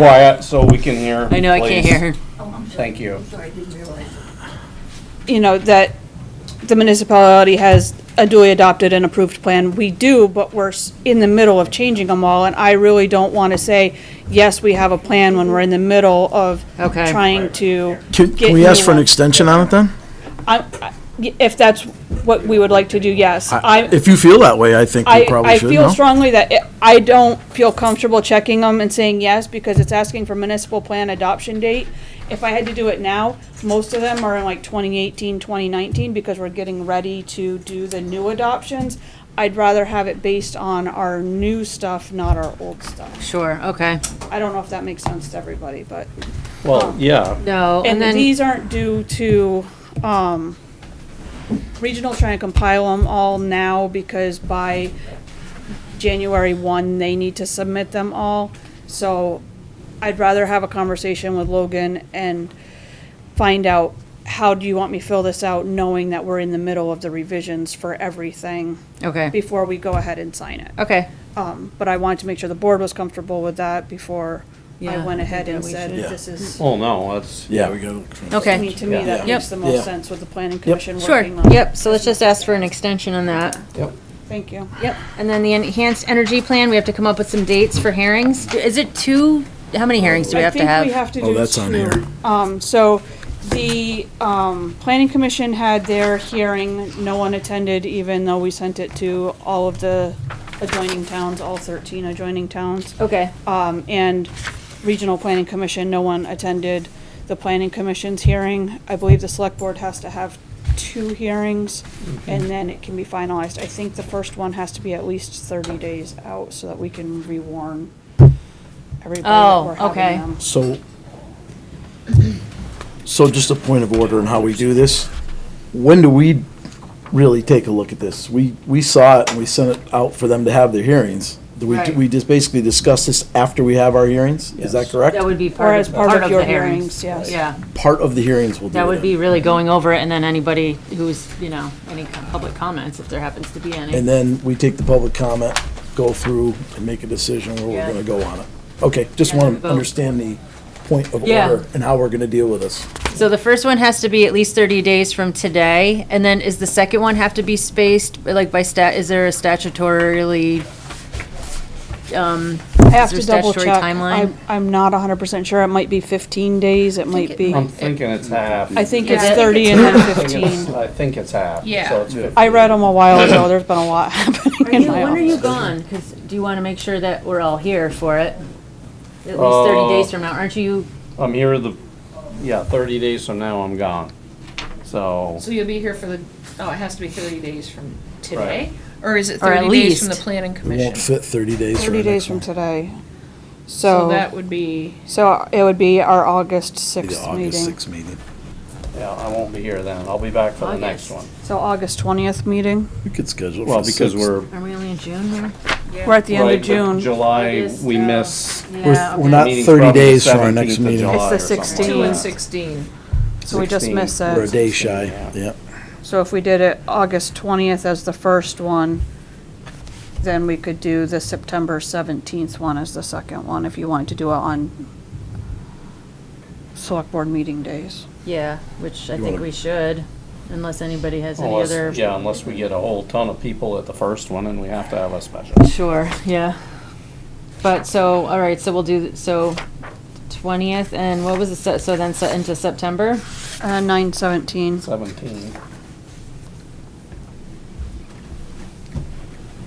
quiet so we can hear. I know, I can't please. hear her. Thank you. you know, that the municipality has a duly adopted and approved plan. We do, but we're s- in the middle of changing them all, and I really don't want to say, yes, we have a plan when we're in the middle of Okay. trying to, Can, Get can we ask new for an ones. extension on it then? I- I- if that's what we would like to do, yes. I, If you feel that way, I think we I, probably I should, feel no? strongly that it- I don't feel comfortable checking them and saying yes, because it's asking for municipal plan adoption date. If I had to do it now, most of them are in like 2018, 2019, because we're getting ready to do the new adoptions. I'd rather have it based on our new stuff, not our old stuff. Sure, okay. I don't know if that makes sense to everybody, but, Well, yeah, No, and and then, these aren't due to, um, regional trying to compile them all now, because by January 1, they need to submit them all. So I'd rather have a conversation with Logan and find out, how do you want me to fill this out, knowing that we're in the middle of the revisions for everything okay, before we go ahead and sign it. okay. Um, But I wanted to make sure the board was comfortable with that before I Yeah, went I think ahead that and we said, should. this is. well, Oh, no, that's, Yeah, we gotta look for. I mean, Okay, to me, that Yeah. makes the Yeah. most sense with the planning commission sure, working on it. yep, so let's just ask for an extension on that. yep. Thank you. Yep, and then the enhanced energy plan, we have to come up with some dates for hearings. Is it two, how many hearings do we have to I think we have? have to do Oh, that's on two. here. Um, so the, um, planning commission had their hearing, no one attended, even though we sent it to all of the adjoining towns, all thirteen adjoining towns. Okay, Um, and regional planning commission, no one attended the planning commission's hearing. I believe the select board has to have two hearings and then it can be finalized. I think the first one has to be at least thirty days out so that we can rewarn everybody that Oh, we're having okay. them. So, so just a point of order on how we do this. When do we really take a look at this? We, we saw it and we sent it out for them to have their hearings. Do we, do Right. we just basically discuss this after we have our hearings? Is that correct? that would be Or part as of, part of your the hearings. hearings, yes. Yeah, Part of the hearings will do that would it. be really going over it, and then anybody who's, you know, any co- public comments, if there happens to be any. And then we take the public comment, go through and make a decision where Yeah. we're gonna go on it. Okay, just Yeah, wanna vote. understand the point of Yeah. order and how we're gonna deal with this. So the first one has to be at least 30 days from today, and then is the second one have to be spaced, like by stat, is there a statutorily, um, I have there to double statutory check. timeline? I'm, I'm not hundred percent sure. It might be fifteen days, it might be, I'm thinking it's half. I think Yeah, it's I think thirty it's and I then think it's- fifteen. I think it's half. Yeah. So it's fifteen. I read them a while ago, there's been a lot happening Are in you, when my are office. you gone? Because do you want to make sure that we're all here for it? At least 30 Uh, days from now, aren't you? I'm here the, yeah, thirty days from now, I'm gone. So, So you'll be here for the, oh, it has to be 30 days from today? Or is it Or at 30 days from the least. planning It commission? won't fit thirty days for Thirty our days next from one. today. So So, that would be, so it would be our August Be the sixth August meeting. sixth meeting. yeah, I won't be here then. I'll be back for the next one. August. So August twentieth meeting. We could schedule Well, because we're. Are we only in June here? We're at the end right, of but June. July, August, we uh, miss. Yeah, we're okay. not- meeting's 30 probably the days from our next 17th of meeting. July It's the or something 2 like and sixteenth. that. 16. So we just 16. missed We're a it. day shy, yeah. So if we did it August twentieth as the first one, then we could do the September seventeenth one as the second one, if you wanted to do it on select board meeting days. Yeah, which I You think wanna- we should, unless anybody has any Unless- other. Yeah, unless we get a whole ton of people at the first one and we have to have a special. Sure, yeah. But so, all right, so we'll do, so 20th, and what was the, se- so then se- into September? Uh, nine seventeen, Seventeen.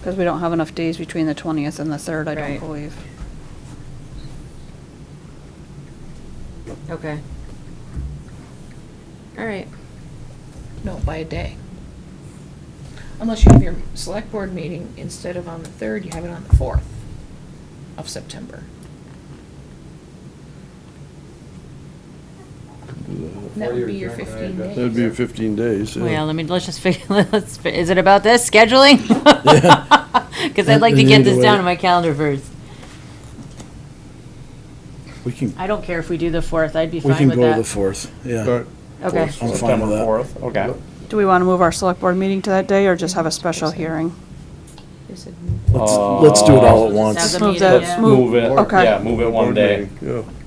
because we don't have enough days between the twentieth and the third, I don't Right. believe. Okay. All right. No, by a day. Unless you have your select board meeting, instead of on the 3rd, you have it on the 4th of September. That would be your 15 days. That'd be 15 days. yeah. Well, let me, let's just figure, let's, fi- is it about this scheduling? Because I'd like to get this down in my calendar first. We can, I don't care if we do the fourth, I'd be we fine can with go the that. fourth, yeah. But Okay, I'm fine September with that. fourth, okay. Do we want to move our select board meeting to that day or just have a special hearing? we said, Let's, let's do it all at Now once. the Move meeting, that- yeah. Let's move it, Okay. yeah, move it one day. Yeah.